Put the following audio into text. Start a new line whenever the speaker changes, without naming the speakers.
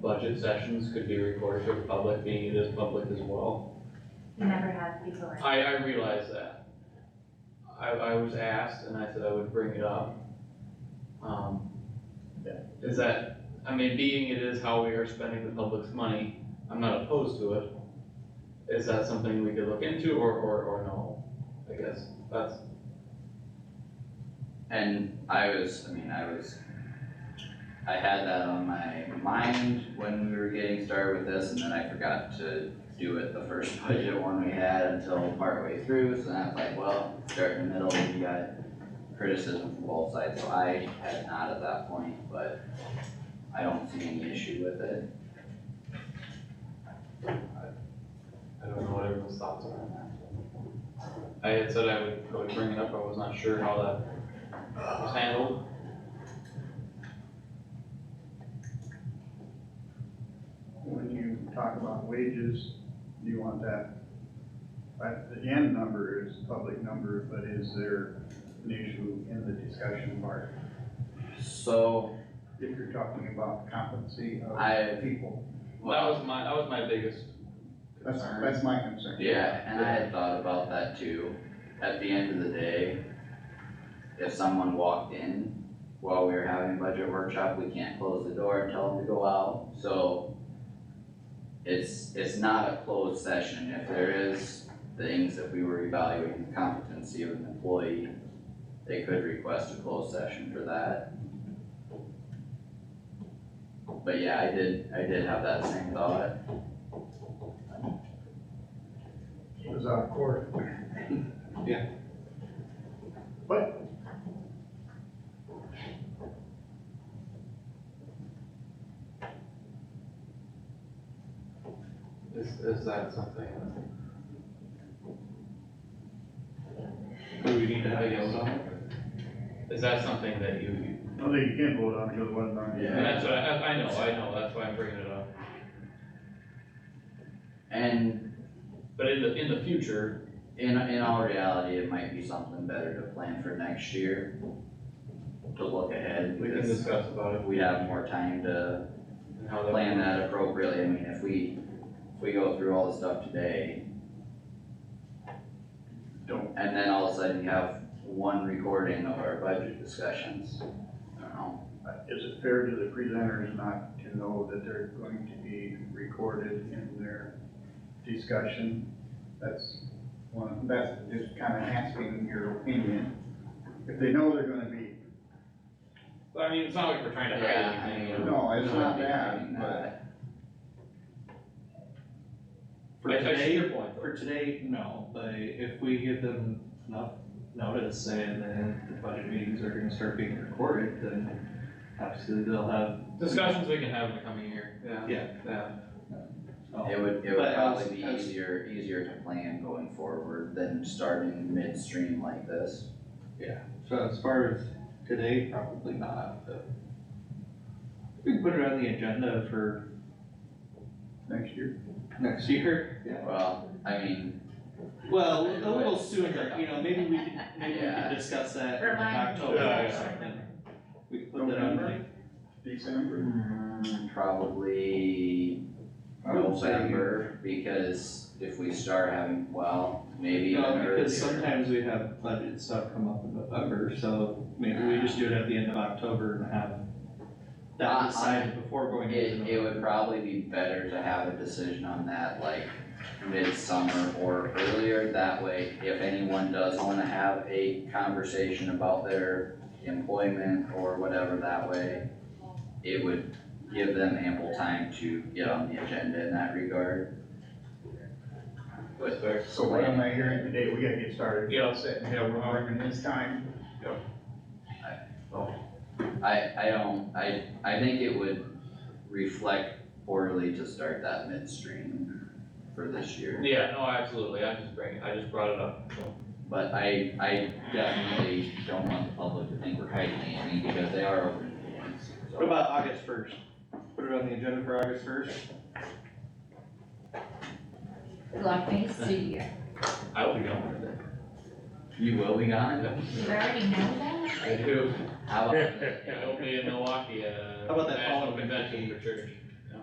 budget sessions could be recorded for the public, being it is public as well.
We never had before.
I, I realize that. I, I was asked and I said I would bring it up. Um, is that, I mean, being it is how we are spending the public's money, I'm not opposed to it. Is that something we could look into or, or, or no? I guess that's,
And I was, I mean, I was, I had that on my mind when we were getting started with this, and then I forgot to do it the first budget one we had until partway through, so then I was like, well, start in the middle, you got criticism from both sides, so I had not at that point, but I don't see any issue with it.
I don't know what everyone's thoughts are on that. I had said I would, I would bring it up, I was not sure how that was handled.
When you talk about wages, do you want that? But the end number is a public number, but is there an issue in the discussion part?
So,
If you're talking about competency
I-
of people,
That
well,
was my, that was my biggest
that's,
concern.
that's my concern.
yeah, and I had thought about that too, at the end of the day, if someone walked in while we were having budget workshop, we can't close the door and tell them to go out, so it's, it's not a closed session, if there is things that we were evaluating the competency of an employee, they could request a closed session for that. But yeah, I did, I did have that same thought,
It was out of court.
Yeah.
But.
Is, is that something? Do we need to have a vote on? it? Is that something that you, you-
I don't think you can vote on it because it wasn't on. the-
Yeah.
and that's what I, I know, I know, that's why I'm bringing it up.
and
But in the, in the future,
In, in all reality, it might be something better to plan for next year. To look ahead,
we can
because
discuss about it.
we have more time to
and how that-
plan that appropriately, I mean, if we, if we go through all the stuff today. Don't, and then all of a sudden you have one recording of our budget discussions, I don't know.
Uh, Is it fair to the presenters not to know that they're going to be recorded in their discussion? That's one, that's just kind of asking your opinion. If they know they're gonna be,
But I mean, it's not like we're trying to
Yeah,
hide
I
anything.
mean-
no, it's not
Doing
that, but
that.
For
I- I see
today,
your point, though.
for today, no, but if we give them enough notice saying that the budget meetings are gonna start being recorded, then absolutely they'll have,
Discussions we can have in the coming year, yeah.
yeah.
Yeah.
oh,
It would, it
But
would
I was-
probably be
I was-
easier, easier to plan going forward than starting midstream like this.
So as far as today, probably not, but we can put it on the agenda for
next year,
next year. Yeah.
Well, I mean,
Well, a little sooner, you know, maybe we could, maybe we
Yeah.
could discuss that in like
Remind me.
October
Yeah,
or
yeah.
something. We could put that on the-
November? December.
mm, probably
I would say-
November, because if we start having, well, maybe even
No,
earlier.
because sometimes we have budget stuff come up in November, so maybe we just do it at the end of October and have
Uh,
that decided before going into
It,
November.
it would probably be better to have a decision on that like midsummer or earlier, that way if anyone does wanna have a conversation about their employment or whatever that way, it would give them ample time to get on the agenda in that regard. But
So what am I hearing today, we gotta get started.
Yeah.
Set, yeah, we're arguing this time,
I, I don't, I, I think it would reflect poorly to start that midstream for this year.
Yeah, no, absolutely, I'm just bringing, I just brought it up.
But I, I definitely don't want the public to think we're hiding anything because they are open meetings. so.
What about August first? Put it on the agenda for August first?
Lock me, see you.
I will be gone with it.
You will be gone?
You already know that?
I do.
How about,
I'll be in Milwaukee at a
How about that
national
following
convention
week?
for church.